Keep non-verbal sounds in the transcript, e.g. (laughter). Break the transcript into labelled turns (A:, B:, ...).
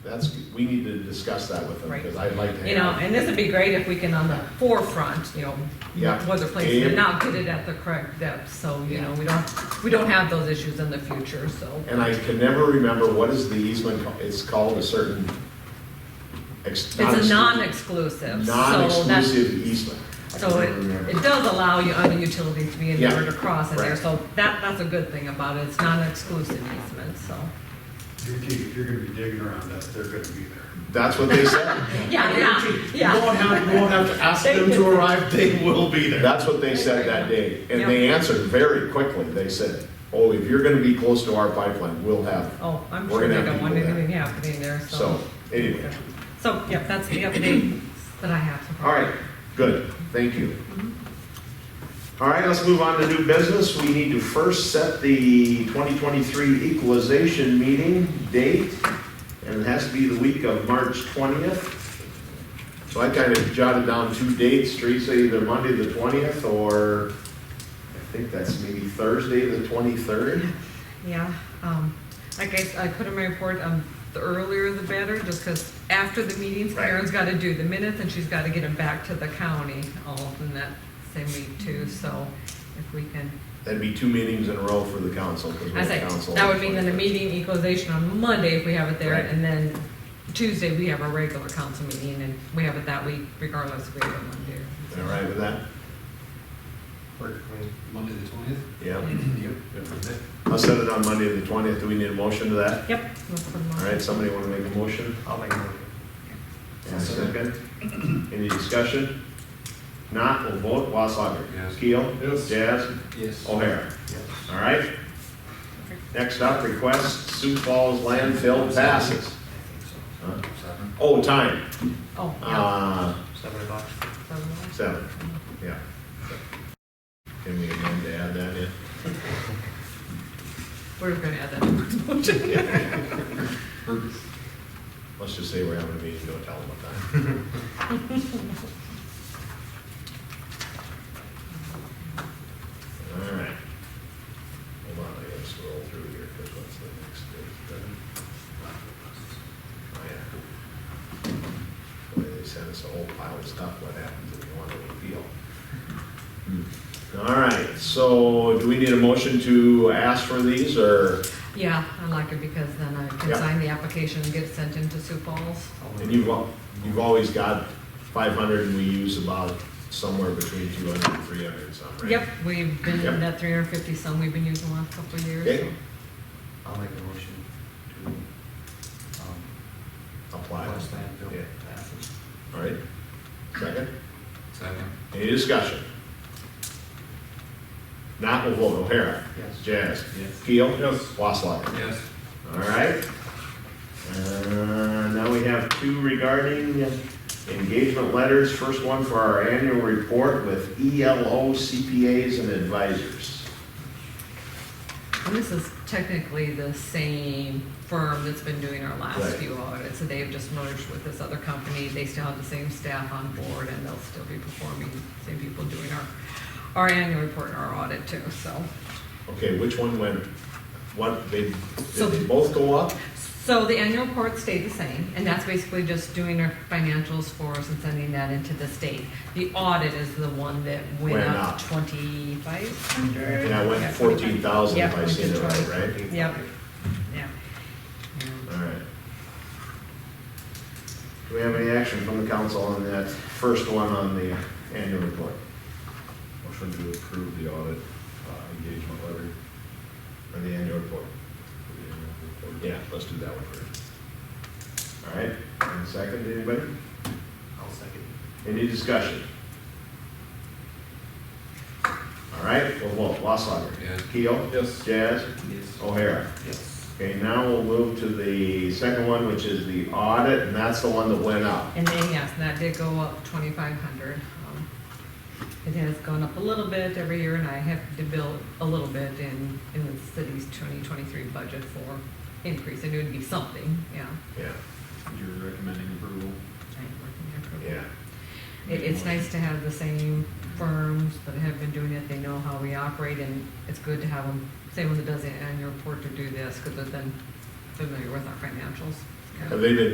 A: That's, we need to discuss that with them,
B: Right.
A: because I'd like to have.
B: You know, and this would be great if we can on the forefront, you know,
A: Yeah.
B: was a place
A: Yeah.
B: and now get it at the correct depth, so, you know, we don't, we don't have those issues in the future, so.
A: And I can never remember, what is the easement, ca- it's called a certain. It's
B: It's a non-exclusive, so that's,
A: Non-exclusive easement. I can
B: so it,
A: never remember.
B: it does allow you other utilities to be in
A: Yeah.
B: order to cross in there,
A: Right.
B: so that, that's a good thing about it, it's non-exclusive easement, so.
C: Guaranteed, if you're gonna be digging around that, they're gonna be
A: (laughs)
C: there.
A: That's what they said.
B: Yeah, yeah,
C: You
B: yeah.
C: won't have, you won't have to ask them to arrive, they will be there.
A: That's what they said that day. And they answered very quickly. They said, oh, if you're gonna be close to our pipeline, we'll have.
B: Oh, I'm
A: We're
B: sure they
A: gonna have
B: don't want
A: people there.
B: anything happening there, so.
A: So, anyway,
B: So, yeah, that's the update that I have. so far.
A: all right, good, thank you. All right, let's move on to new business. We need to first set the 2023 equalization meeting date, and it has to be the week of March 20th. So I kind of jotted down two dates, Teresa, either Monday the 20th, or I think that's maybe Thursday the 23rd.
B: Yeah, um, like I, I put in my report, um, the earlier the better, just because after the meetings,
A: Right.
B: Karen's got to do the minutes and she's got to get them back to the county all in that same week too, so if we can.
A: That'd be two meetings in a row for the council. 'cause we're
B: I
A: the
B: say,
A: council
B: that
A: on
B: would mean then a
A: 21st.
B: meeting equalization on Monday if we have it there,
A: Right.
B: and then Tuesday, we have our regular council meeting and we have it that week regardless if we have it Monday. or-
A: All right with that?
C: Monday the twentieth?
A: Yeah.
C: Yep.
A: I'll set it on Monday the 20th. Do we need a motion to that?
B: Yep. let's put them on.
A: All right, somebody want to make a motion?
C: I'll make one.
A: And a Second. Any discussion? Not, we'll vote. Wasshacker.
C: Yes.
A: Keel.
C: Yes.
A: Jazz.
C: Yes.
A: O'Hara. All right. Next up, request Sioux Falls landfill passes. Huh?
C: Seven,
A: Oh, time.
B: Oh, yeah.
A: Uh,
C: seven o'clock.
A: Seven, yeah. Can we amend to add that in?
B: We're gonna add that. to the motion.
A: Let's just say we're having a meeting, don't tell them what time. All right. Hold on, I gotta scroll through here, because what's the next date? Oh, yeah. Boy, they sent us a whole pile of stuff, what happens if you want to appeal? All right, so do we need a motion to ask for these, or,
B: Yeah, I like it because then I can
A: Yeah.
B: sign the application and get it sent into Sioux Falls.
A: and you've, al- you've always got five hundred, and we use about somewhere between 200 and 300 some, right?
B: Yep, we've been
A: Yep.
B: in that three hundred and fifty some we've been using the last couple of years.
A: Okay.
B: so-
D: I'll make a motion to, um,
A: Apply.
D: request landfill
A: Yeah.
D: passes.
A: All right, second,
C: Second.
A: any discussion? Not will vote, O'Hara.
D: Yes.
A: Jazz.
C: Yes.
A: Keel. Yes. Wasslerger.
C: Yes.
A: All right. Uh, Now we have two regarding engagement letters. First one for our annual report with E ELO CPAs and advisors.
B: And this is technically the same firm that's been doing our last
A: Right.
B: few audits, so they've just merged with this other company. They still have the same staff on board and they'll still be performing, same people doing our, our annual report and our audit too, so.
A: Okay, which one went, what, they, did
B: So-
A: they both go up?
B: So the annual report stayed the same, and that's basically just doing our financials for us and sending that into the state. The audit is the one that went
A: Went
B: up
A: up.
B: twenty-five hundred?
A: Yeah, I went fourteen thousand if I seen it right, right?
B: Yep, yeah. Yeah.
A: All right. Do we have any action from the council on that first one on the annual report?
E: Motion to approve the audit uh, engagement letter.
A: Or the annual report?
E: for the annual report.
A: Yeah, let's do that one first. All right, and second, anybody?
D: I'll second.
A: Any discussion? All right, we'll vote, Wasslerger.
C: Yes.
A: Keel.
E: Yes.
A: Jazz.
D: Yes.
A: O'Hara.
D: Yes.
A: Okay, now we'll move to the second one, which is the audit, and that's the one that went up.
B: And then, yes, that did go up twenty-five hundred. Um, It has gone up a little bit every year, and I have to build a little bit in, in the city's twenty twenty-three budget for increase. I knew it'd be something, yeah.
A: Yeah,
E: You're recommending approval?
B: I ain't working there for a while.
A: yeah.
B: It, it's nice to have the same firms that have been doing it, they know how we operate, and it's good to have them, same one that does the annual report to do this, because they're then familiar with our financials.
A: Have they been